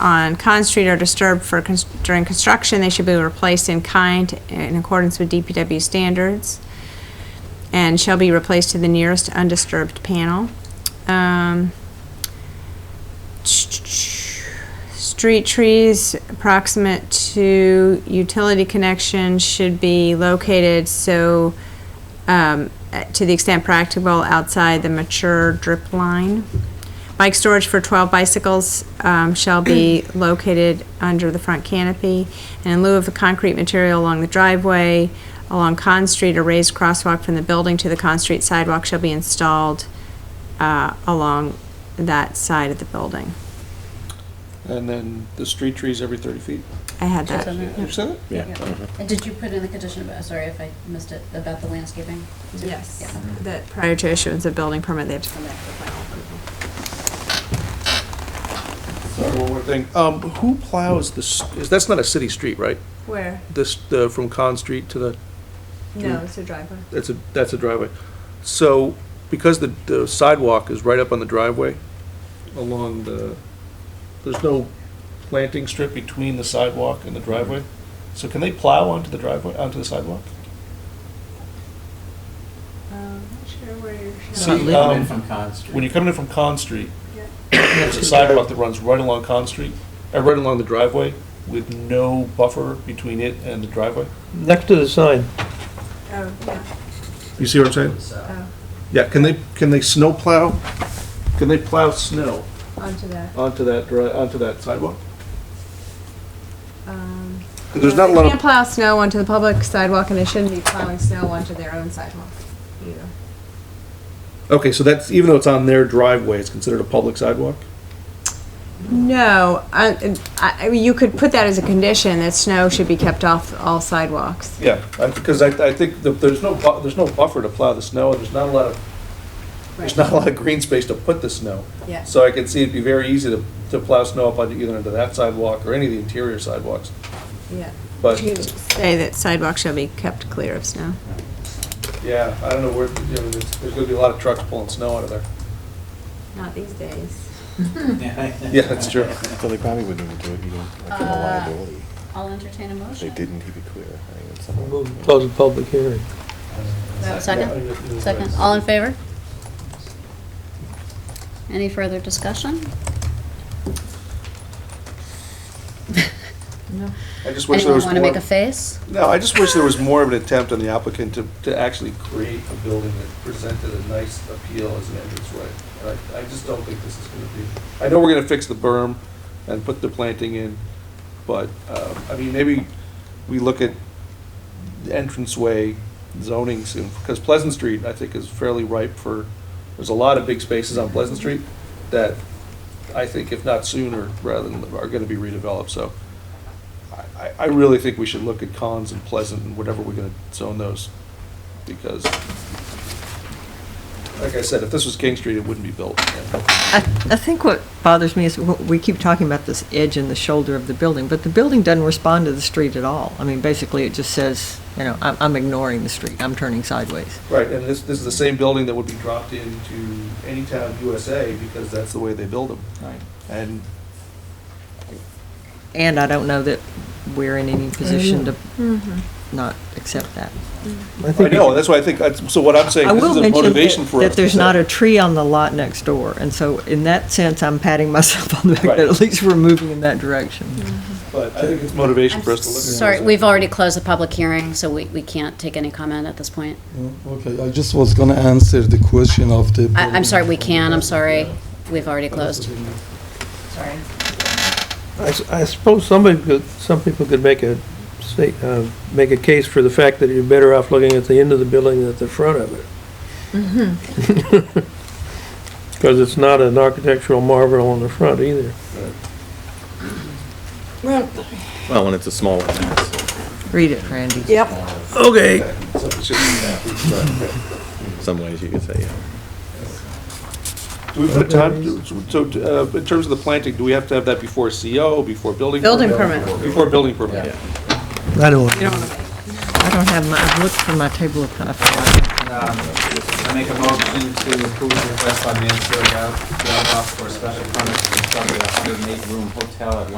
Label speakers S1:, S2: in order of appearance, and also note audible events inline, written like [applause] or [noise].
S1: on Con Street are disturbed for, cons- during construction, they should be replaced in kind in accordance with DPW standards and shall be replaced to the nearest undisturbed panel. Um, Street trees approximate to utility connection should be located so, um, eh, to the extent practicable, outside the mature drip line. Bike storage for 12 bicycles um, shall be located under the front canopy. And in lieu of the concrete material along the driveway, along Con Street, a raised crosswalk from the building to the Con Street sidewalk shall be installed uh, along that side of the building.
S2: And then the street trees every 30 feet.
S1: I had
S3: Just
S1: that.
S3: on that?
S2: You said it?
S4: Yeah.
S2: Mm-hmm.
S3: And did you put in the condition about, sorry if I missed it, about the landscaping? Yeah.
S1: Yes,
S2: Mm-hmm.
S1: Mm-hmm. that prior to issuance of building permit, they have to come back for final approval.
S2: Sorry, one more thing. Um, Who plows this, that's not a city street, right?
S1: Where? Mm-hmm.
S2: This, the- from Con Street to the,
S1: No, it's a driveway.
S2: that's a, that's a driveway. So because the the sidewalk is right up on the driveway, along the, there's no planting strip between the sidewalk and the driveway. So can they plow onto the driveway, onto the sidewalk?
S1: Um, not sure where you're
S2: See,
S5: Not
S2: um,
S5: living in from Con [laughs]
S2: When you're
S5: Street.
S2: coming in from Con Street, [coughs] there's a sidewalk that runs right along Con Street, uh, right along the driveway, with no buffer between it and the driveway.
S6: Next to the sign.
S1: Oh, yeah.
S2: You see what I'm saying?
S1: Oh,
S2: Yeah, can they, can they snow plow? Can they plow snow
S1: onto that.
S2: onto that, dri- onto that sidewalk?
S1: Um,
S2: 'Cause There's not a lot
S1: They can't
S2: of,
S1: plow snow onto the public sidewalk, and they shouldn't be plowing snow onto their own sidewalk.
S2: okay, so that's, even though it's on their driveway, it's considered a public sidewalk?
S1: No, I, I, I mean, you could put that as a condition, that snow should be kept off all sidewalks.
S2: Yeah, I- because I, I think that there's no, bu- there's no buffer to plow the snow, and there's not a lot of, there's not a lot of green space to put the snow.
S1: Yeah.
S2: So I can see it'd be very easy to, to plow snow up onto either into that sidewalk or any of the interior sidewalks,
S1: Yeah.
S2: but.
S1: Say that sidewalks shall be kept clear of snow.
S2: Yeah, I don't know where, you know, there's, there's gonna be a lot of trucks pulling snow out of
S3: [laughs]
S2: there.
S1: Not these days.
S2: Yeah, that's true.
S7: So they probably wouldn't even do it, you know, like from a
S3: Uh,
S7: liability.
S3: I'll entertain a
S7: If they
S3: motion.
S7: didn't, he'd be clear. I mean, it's something.
S6: Move to Close the public hearing.
S3: Second, second, all in favor? Any further discussion?
S2: I just wish there
S3: Anyone
S2: was
S3: want to make
S2: more,
S3: a face?
S2: no, I just wish there was more of an attempt on the applicant to, to actually create a building that presented a nice appeal as an entranceway. And I, I just don't think this is gonna be, I know we're gonna fix the berm and put the planting in, but, um, I mean, maybe we look at the entranceway zoning soon, because Pleasant Street, I think, is fairly ripe for, there's a lot of big spaces on Pleasant Street that I think if not sooner, rather than, are gonna be redeveloped, so I- I, I really think we should look at Cons and Pleasant and whatever we're gonna zone those, because like I said, if this was King Street, it wouldn't be built.
S8: I, I think what bothers me is w- we keep talking about this edge and the shoulder of the building, but the building doesn't respond to the street at all. I mean, basically, it just says, you know, I'm, I'm ignoring the street, I'm turning sideways.
S2: Right, and this, this is the same building that would be dropped into any town USA, because that's the way they build them.
S8: Right.
S2: And
S8: And I don't know that we're in any position to
S1: Mm-hmm.
S8: not accept that.
S6: I
S2: I
S6: think
S2: know, that's why I think, that's- so what I'm saying,
S8: I
S2: this
S8: will
S2: is a
S8: mention
S2: motivation
S8: that,
S2: for us.
S8: that
S2: to
S8: there's
S2: say-
S8: not a tree on the lot next door, and so in that sense, I'm patting [laughs] myself on the back
S2: Right.
S8: that at least we're moving in that direction.
S1: Mm-hmm.
S2: But I think it's motivation for us to look at.
S3: Sorry, we've already closed the public hearing, so we, we can't take any comment at this point.
S9: Okay, I just was gonna answer the question of the.
S3: I, I'm sorry, we can, I'm sorry. We've already closed. Sorry.
S6: I s- I suppose somebody could, some people could make a, state- uh, make a case for the fact that you're better off looking at the end of the building than at the front of it. [laughs] Because it's not an architectural marvel on the front either.
S7: Well, when it's a small one.
S8: Read it, Randy.
S6: Okay.
S2: So it's just-
S7: Some ways you could say, yeah.
S2: Do we put a time, so uh, in terms of the planting, do we have to have that before CO, before building?
S1: Building permit.
S2: Before building permit?
S7: Yeah.
S6: I don't want.
S8: I don't have my, I've looked for my table of contents.
S5: Um, I
S4: I make a motion to approve the request by Mansfield Route Golf for a special permit to construct a 108-room hotel at